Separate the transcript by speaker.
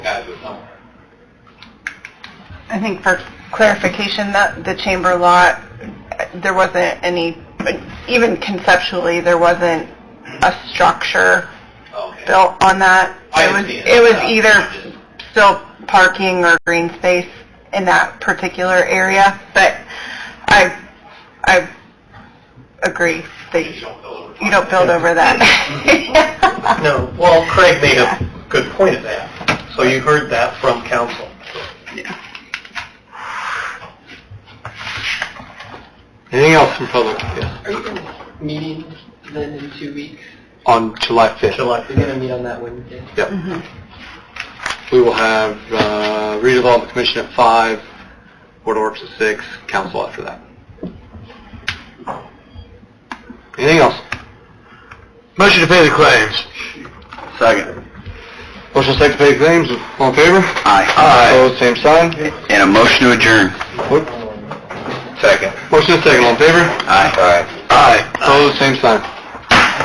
Speaker 1: No.
Speaker 2: I think for clarification, that the chamber lot, uh, there wasn't any, even conceptually, there wasn't a structure
Speaker 1: Okay.
Speaker 2: built on that.
Speaker 1: I
Speaker 2: It was,
Speaker 1: understand.
Speaker 2: it was
Speaker 1: Yeah.
Speaker 2: either still parking or green space in that particular area, but I, I agree that
Speaker 1: You don't build over
Speaker 2: you don't build over that.
Speaker 3: No, well, Craig made a good point of that. So you heard that from council. Anything else from public? Yes.
Speaker 4: Are you gonna meeting then in two weeks?
Speaker 3: On July 5th. July
Speaker 4: You're gonna meet on that Wednesday?
Speaker 3: Yep. We will have uh, redevelopment commission at 5, board of works at 6, council after that. Anything else? Motion to pay the claims.
Speaker 5: Second.
Speaker 3: Motion second to pay the claims, all in favor?
Speaker 5: Aye.
Speaker 3: Opposed, same sign.
Speaker 5: And a motion to adjourn.
Speaker 3: Whoop.
Speaker 5: Second.
Speaker 3: Motion second, all in favor?
Speaker 5: Aye.
Speaker 3: Aye. Opposed, same sign.